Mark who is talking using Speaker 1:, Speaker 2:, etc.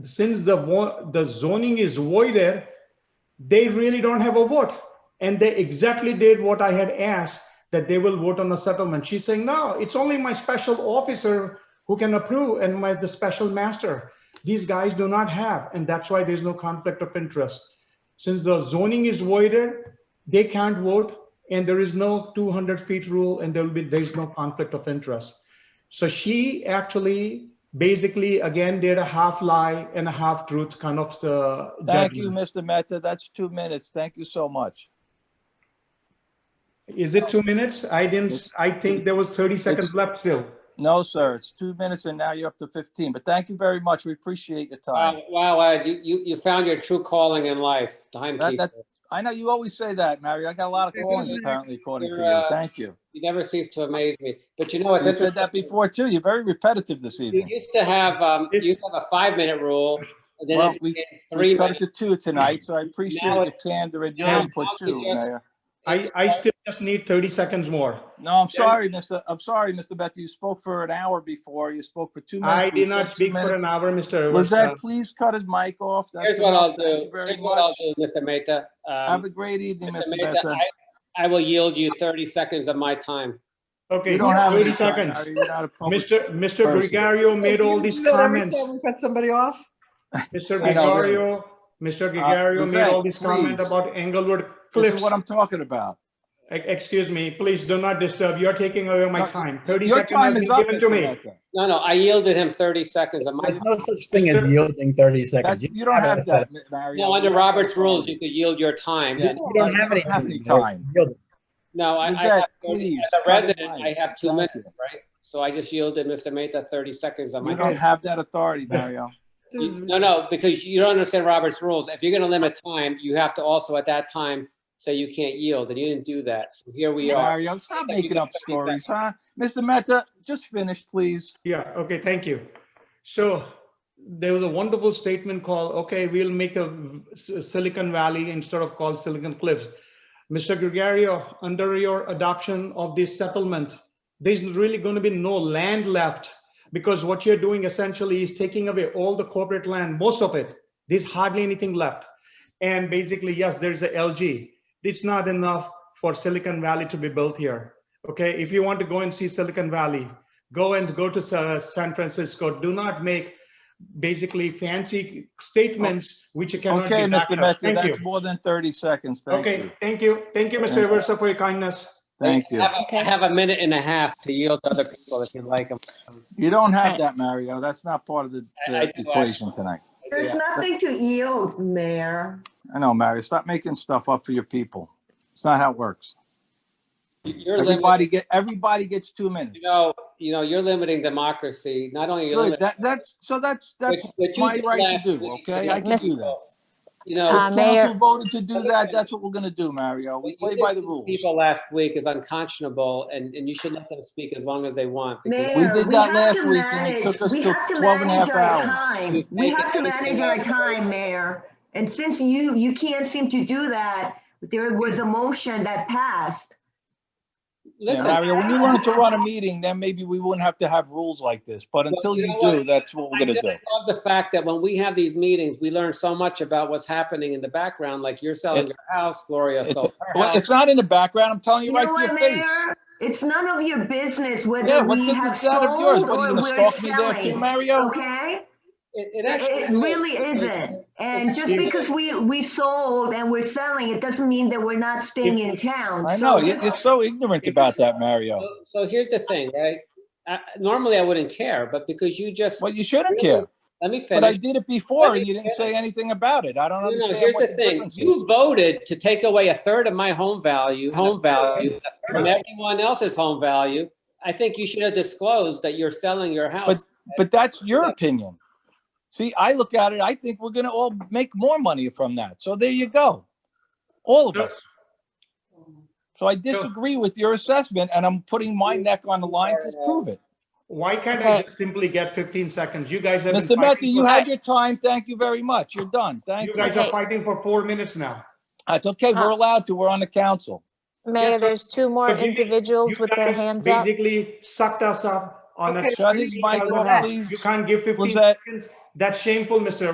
Speaker 1: since the, wa- the zoning is voided, they really don't have a vote. And they exactly did what I had asked, that they will vote on a settlement. She's saying, no, it's only my special officer who can approve and my, the special master. These guys do not have, and that's why there's no conflict of interest. Since the zoning is voided, they can't vote and there is no 200 feet rule and there will be, there's no conflict of interest. So she actually basically again did a half lie and a half truth kind of the.
Speaker 2: Thank you,
Speaker 1: judgment.
Speaker 2: Mr. Mehta. That's two minutes. Thank you so much.
Speaker 1: Is it two minutes? I didn't, I think there was 30 seconds left still.
Speaker 2: No, sir, it's two minutes and now you're up to 15, but thank you very much. We appreciate your time.
Speaker 3: Wow, wow, Ed, you, you, you found your true calling in life, timekeeper.
Speaker 2: that- I know you always say that, Mario. I got a lot of callings apparently according to
Speaker 3: You're,
Speaker 2: you.
Speaker 3: uh,
Speaker 2: Thank you.
Speaker 3: You never cease to amaze me. But you know, it's
Speaker 2: You said that
Speaker 3: interesting.
Speaker 2: before too. You're very repetitive this
Speaker 3: You
Speaker 2: evening.
Speaker 3: used to have, um, you
Speaker 1: It's-
Speaker 3: used to have a five-minute rule, and
Speaker 2: Well,
Speaker 3: then it
Speaker 2: we-
Speaker 3: became three
Speaker 2: We cut it
Speaker 3: minutes.
Speaker 2: to two tonight, so I appreciate
Speaker 3: Now
Speaker 2: the candor and your
Speaker 1: Now-
Speaker 2: input
Speaker 3: now
Speaker 2: too,
Speaker 3: you just-
Speaker 2: Mayor.
Speaker 1: I, I still just need 30 seconds more.
Speaker 2: No, I'm sorry, Mr. I'm sorry, Mr. Mehta. You spoke for an hour before. You spoke for two minutes.
Speaker 1: I
Speaker 2: We
Speaker 1: did not
Speaker 2: said two
Speaker 1: speak for
Speaker 2: minutes.
Speaker 1: an hour, Mr.
Speaker 2: Lizette,
Speaker 1: Versa.
Speaker 2: please cut his mic off. That's
Speaker 3: Here's what I'll
Speaker 2: enough. Thank
Speaker 3: do,
Speaker 2: you very
Speaker 3: here's what I'll
Speaker 2: much.
Speaker 3: do, Mr. Mehta.
Speaker 2: Have
Speaker 3: Um,
Speaker 2: a great evening,
Speaker 3: Mr.
Speaker 2: Mr.
Speaker 3: Mehta,
Speaker 2: Mehta.
Speaker 3: I I will yield you 30 seconds of my time.
Speaker 1: Okay,
Speaker 2: You don't have
Speaker 1: 30
Speaker 2: any time.
Speaker 1: seconds.
Speaker 2: Mario. You're not a public-
Speaker 1: Mr. Mr.
Speaker 2: person.
Speaker 1: Gregario made all these
Speaker 4: You know every
Speaker 1: comments.
Speaker 4: time We cut somebody off?
Speaker 1: Mr.
Speaker 2: I know, really.
Speaker 1: Gregario, Mr. Gregario made all
Speaker 2: Uh, Lizette,
Speaker 1: these comments
Speaker 2: please.
Speaker 1: about Englewood
Speaker 2: This is
Speaker 1: Cliffs.
Speaker 2: what I'm talking about.
Speaker 1: E- Excuse me, please do not disturb. You're taking away my
Speaker 2: No,
Speaker 1: time. 30
Speaker 2: Your
Speaker 1: seconds has
Speaker 2: time is
Speaker 1: been
Speaker 2: up,
Speaker 1: given to
Speaker 2: Mr.
Speaker 1: me.
Speaker 2: Mehta.
Speaker 3: No, no, I yielded him 30 seconds of my
Speaker 4: There's
Speaker 3: time.
Speaker 4: no such thing as
Speaker 1: Mr.
Speaker 4: yielding 30 seconds.
Speaker 2: That's, you don't have that, Mario.
Speaker 3: No, under
Speaker 2: You don't have
Speaker 3: Robert's
Speaker 2: that.
Speaker 3: rules, you could yield your time.
Speaker 2: Yeah.
Speaker 3: and-
Speaker 4: You don't have any.
Speaker 2: Have any time.
Speaker 4: Yielding.
Speaker 3: No, I, I
Speaker 2: Lizette,
Speaker 3: have, 30
Speaker 2: please,
Speaker 3: as a
Speaker 2: cut it
Speaker 3: resident, I
Speaker 2: light.
Speaker 3: have two
Speaker 2: Thank
Speaker 3: minutes,
Speaker 2: you.
Speaker 3: right? So I just yielded Mr. Mehta 30 seconds on my
Speaker 2: You
Speaker 3: time.
Speaker 2: don't have that authority, Mario.
Speaker 3: You- No, no, because you don't understand Robert's rules. If you're gonna limit time, you have to also at that time say you can't yield, and you didn't do that. So here we are.
Speaker 2: Mario, stop
Speaker 3: Thank you,
Speaker 2: making up
Speaker 3: Mr.
Speaker 2: stories, huh? Mr. Mehta, just finish, please.
Speaker 1: Yeah, okay, thank you. So there was a wonderful statement called, okay, we'll make a S- Silicon Valley instead of called Silicon Cliffs. Mr. Gregario, under your adoption of this settlement, there's really going to be no land left because what you're doing essentially is taking away all the corporate land, most of it. There's hardly anything left. And basically, yes, there's a LG. It's not enough for Silicon Valley to be built here. Okay, if you want to go and see Silicon Valley, go and go to Sa- San Francisco. Do not make basically fancy statements which you cannot.
Speaker 2: Okay,
Speaker 1: be backed
Speaker 2: Mr.
Speaker 1: up.
Speaker 2: Mehta,
Speaker 1: Thank you.
Speaker 2: that's more than 30 seconds. Thank
Speaker 1: Okay,
Speaker 2: you.
Speaker 1: thank you. Thank you,
Speaker 2: Thank
Speaker 1: Mr.
Speaker 2: you.
Speaker 1: Aversa, for your kindness.
Speaker 2: Thank
Speaker 3: I
Speaker 2: you.
Speaker 3: have a- I have a minute and a half to yield to other people if you like them.
Speaker 2: You don't have that, Mario. That's not part of the
Speaker 3: I- I
Speaker 2: the
Speaker 3: do
Speaker 2: equation tonight.
Speaker 5: There's nothing to yield, Mayor.
Speaker 2: I know, Mario. Stop making stuff up for your people. It's not how it works.
Speaker 3: You're
Speaker 2: Everybody
Speaker 3: limiting,
Speaker 2: get, everybody gets two minutes.
Speaker 3: you know, you know, you're limiting democracy. Not only you're
Speaker 2: Good,
Speaker 3: limiting.
Speaker 2: that, that's, so that's, that's
Speaker 3: but- but you
Speaker 2: my
Speaker 3: did
Speaker 2: right to
Speaker 3: last
Speaker 2: do,
Speaker 3: week.
Speaker 2: okay? I can
Speaker 6: Miss-
Speaker 2: do that.
Speaker 3: You know.
Speaker 2: This
Speaker 6: Uh, Mayor-
Speaker 2: council voted to do that, that's what we're gonna do, Mario.
Speaker 3: what
Speaker 2: We
Speaker 3: you
Speaker 2: play
Speaker 3: did
Speaker 2: by
Speaker 3: to
Speaker 2: the rules.
Speaker 3: People last week is unconscionable, and, and you should let them speak as long as they want. because-
Speaker 5: Mayor,
Speaker 2: We did
Speaker 5: we
Speaker 2: that
Speaker 5: have
Speaker 2: last
Speaker 5: to
Speaker 2: week and it
Speaker 5: manage,
Speaker 2: took us
Speaker 5: we
Speaker 2: to
Speaker 5: have to
Speaker 2: 12 and a half
Speaker 5: manage our
Speaker 2: hours.
Speaker 5: time. We
Speaker 3: Thank
Speaker 5: have
Speaker 3: you.
Speaker 5: to manage our time, Mayor. And since you, you can't seem to do that, there was a motion that passed.
Speaker 2: Yeah,
Speaker 3: Listen,
Speaker 2: Mario, when you wanted to run a meeting, then maybe we wouldn't have to have rules like this, but until
Speaker 3: you
Speaker 2: you
Speaker 3: know what?
Speaker 2: do, that's what we're
Speaker 3: I
Speaker 2: gonna
Speaker 3: just
Speaker 2: do.
Speaker 3: love the fact that when we have these meetings, we learn so much about what's happening in the background, like you're
Speaker 2: It-
Speaker 3: selling your house, Gloria
Speaker 2: It's-
Speaker 3: sold her
Speaker 2: Well,
Speaker 3: house.
Speaker 2: it's not in the background, I'm telling
Speaker 5: You
Speaker 2: you
Speaker 5: know
Speaker 2: right to
Speaker 5: what,
Speaker 2: your face.
Speaker 5: Mayor? It's none of your business
Speaker 2: Yeah,
Speaker 5: whether
Speaker 2: what
Speaker 5: we have
Speaker 2: business is that of yours?
Speaker 5: sold
Speaker 2: What, are
Speaker 5: or
Speaker 2: you
Speaker 5: we're
Speaker 2: gonna stalk me there too,
Speaker 5: selling,
Speaker 2: Mario?
Speaker 5: okay?
Speaker 3: It- it
Speaker 5: It
Speaker 3: actually
Speaker 5: it
Speaker 3: is.
Speaker 5: really isn't. And just
Speaker 1: If-
Speaker 5: because we, we sold and we're selling, it doesn't mean that we're not staying in town.
Speaker 2: I
Speaker 5: So
Speaker 2: know, you're
Speaker 5: just-
Speaker 2: you're so ignorant about that, Mario.
Speaker 3: So- So here's the thing, right? I- Normally, I wouldn't care, but because you just,
Speaker 2: Well, you shouldn't
Speaker 3: Really?
Speaker 2: care.
Speaker 3: let me
Speaker 2: But I
Speaker 3: finish.
Speaker 2: did it before
Speaker 3: me
Speaker 2: and you didn't say
Speaker 3: finish.
Speaker 2: anything about it. I don't
Speaker 3: No, no,
Speaker 2: understand
Speaker 3: here's
Speaker 2: what
Speaker 3: the
Speaker 2: the
Speaker 3: thing.
Speaker 2: difference is.
Speaker 3: You voted to take away a third of my home value, home value, from everyone else's home value. I think you should have disclosed that you're selling your house.
Speaker 2: But that's your opinion. See, I look at it, I think we're gonna all make more money from that. So there you go. All of us. So I disagree with your assessment and I'm putting my neck on the line to prove it.
Speaker 1: Why can't I
Speaker 6: Okay.
Speaker 1: just simply get 15 seconds? You guys have. been
Speaker 2: Mr. Mehta,
Speaker 1: fighting
Speaker 2: you
Speaker 1: for-
Speaker 2: had your time. Thank you very much. You're done.
Speaker 1: You
Speaker 2: Thank you.
Speaker 1: guys are
Speaker 6: Okay.
Speaker 1: fighting for four minutes now.
Speaker 2: That's okay. We're allowed to. We're on the council.
Speaker 1: Yes,
Speaker 6: Mayor,
Speaker 1: sir.
Speaker 6: there's two more
Speaker 1: But you-
Speaker 6: individuals
Speaker 1: You
Speaker 6: with their
Speaker 1: guys
Speaker 6: hands up.
Speaker 1: Basically sucked us up on a.
Speaker 4: Okay.
Speaker 2: Shut his mic off,
Speaker 1: You
Speaker 2: please.
Speaker 1: can't give 15
Speaker 2: Lizette.
Speaker 1: seconds. That's shameful, Mr.